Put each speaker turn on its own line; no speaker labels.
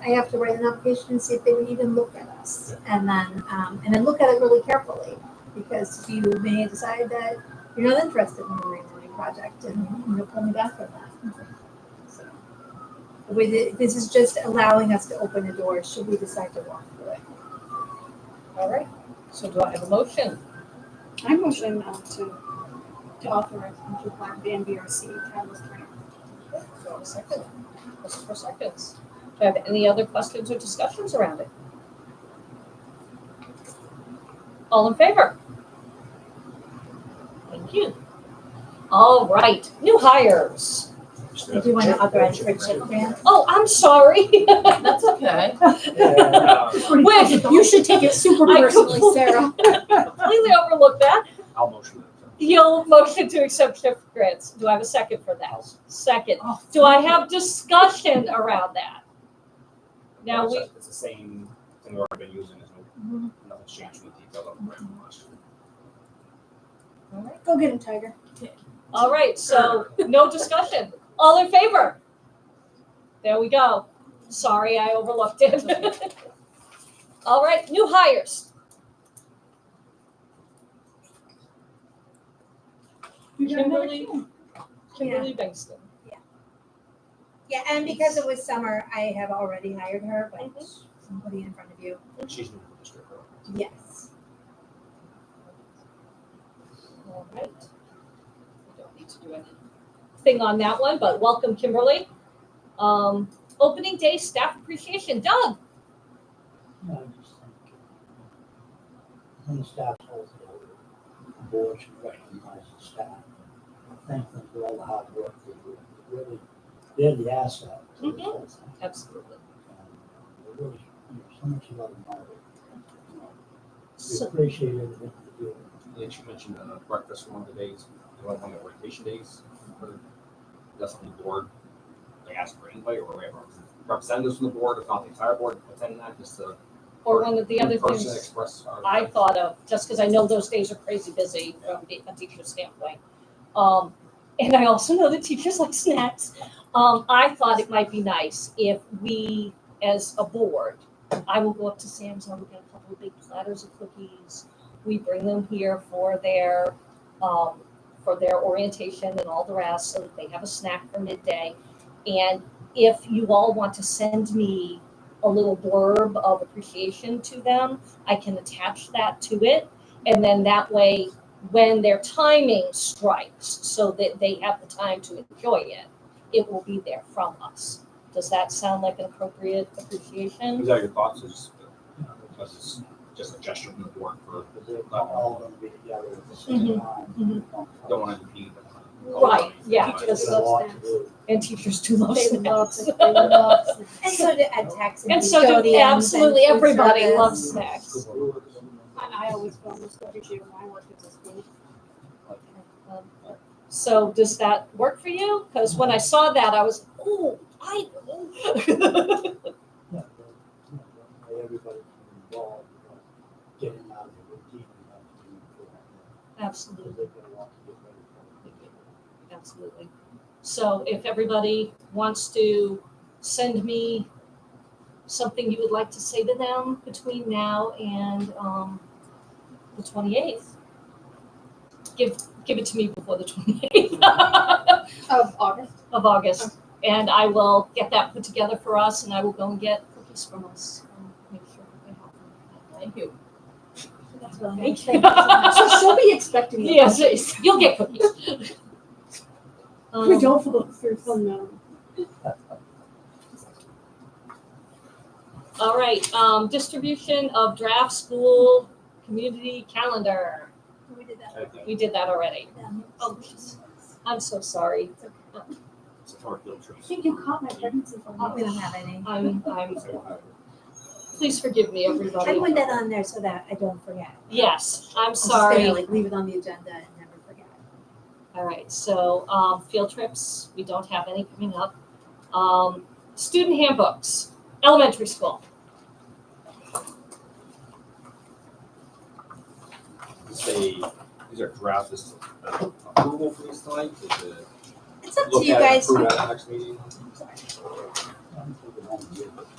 I have to write an application and see if they would even look at us. And then, um, and then look at it really carefully, because you may decide that you're not interested in the marine learning project and you'll pull me back from that. So, With it, this is just allowing us to open the door, should we decide to walk through it.
All right, so do I have a motion?
I motion uh, to, to authorize and to apply the NBRC catalyst grant.
Do I have a second? This is for seconds. Do I have any other questions or discussions around it? All in favor? Thank you. All right, new hires.
Do you want to authorize Bridget Grant?
Oh, I'm sorry.
That's okay.
Wait,
You should take it super
I
personally,
completely-
Sarah.
Completely overlooked that.
I'll motion that.
You'll motion to accept shift grants. Do I have a second for that? Second. Do I have discussion around that? Now we, Mm-hmm.
It's the same thing we've already been using, there's no, nothing's changed from the detail of the grant request.
Go get him, Tiger.
all right, so no discussion. All in favor? There we go. Sorry, I overlooked it. All right, new hires. Kimberly, Kimberly Bengston.
Yeah, and because it was summer, I have already hired her, but
Mm-hmm.
I'm putting it in front of you.
And she's new to the district. right?
Yes.
All right. We don't need to do anything on that one, but welcome, Kimberly. Um, opening day staff appreciation. Doug,
No, I just think uh, When the staff holds it over, the board should recognize the staff. and Thank them for all the hard work they do. They Really, they're the asset. to this whole thing.
absolutely.
And they Really, you know, so much love and honor. You know, We
So-
appreciate everything they do.
And then she mentioned uh, breakfast one of the days, you know, one of the vacation days. but That's on the board. They ask for anybody or we have representatives from the board, if not the entire board, attend that just to.
Or one of the other
in-person
things
Express our.
I thought of, just because I know those days are crazy busy from the- a teacher's standpoint. Um, and I also know that teachers like snacks. Um, I thought it might be nice if we, as a board, I will go up to Sam's, I will get a couple of big platters of cookies. We bring them here for their, um, for their orientation and all the rest, so that they have a snack for midday. And if you all want to send me a little blurb of appreciation to them, I can attach that to it. And then that way, when their timing strikes, so that they have the time to enjoy it, it will be there from us. Does that sound like an appropriate appreciation?
Is that your thoughts? Is, because it's just a gesture from the board for,
Because they're not all going to be together at the same time.
mhm.
don't want to impede.
Right, yeah,
But-
because
There's a lot to
snacks.
do.
And teachers do love
They love,
snacks.
it. they love. it.
And so do ed techs and
And so do
custodians and
absolutely
food
everybody
service.
loves snacks.
I, I always go on this every year when I work at this school.
So does that work for you? Because when I saw that, I was, ooh, I know.
Yeah, but, you know, that way Everybody can be involved, you know, getting out of the routine. and not being involved.
Absolutely.
because they're gonna want to get ready for it.
Absolutely. So if everybody wants to send me something you would like to say to them between now and um, the twenty-eighth, give, give it to me before the twenty-eighth
Of August.
of August. And I will get that put together for us and I will go and get cookies from us and make sure that they have them.
Thank you.
That's what I'm.
Thank
saying. So
you.
she'll be expecting it.
Yes, yes, you'll get cookies.
We
Um,
don't follow through from them.
All right, um, distribution of draft school community calendar.
We did that.
We did that already.
Um,
Oh, jeez. I'm so sorry.
it's okay.
It's a far field trip.
I think you caught my pregnancy from
Oh, We
August.
don't have any.
I'm, I'm,
So, uh,
please forgive me,
I
everybody.
put that on there so that I don't forget.
Yes, I'm
I'm just gonna,
sorry.
Like leave it on the agenda and never forget.
All right, so, um, field trips, we don't have any coming up. Um, student handbooks, elementary school.
Is they, these are draft, this is uh, approval for these tonight, is it?
It's up to
Look
you
at it,
guys.
approve at the next meeting?
I'm thinking I'm good.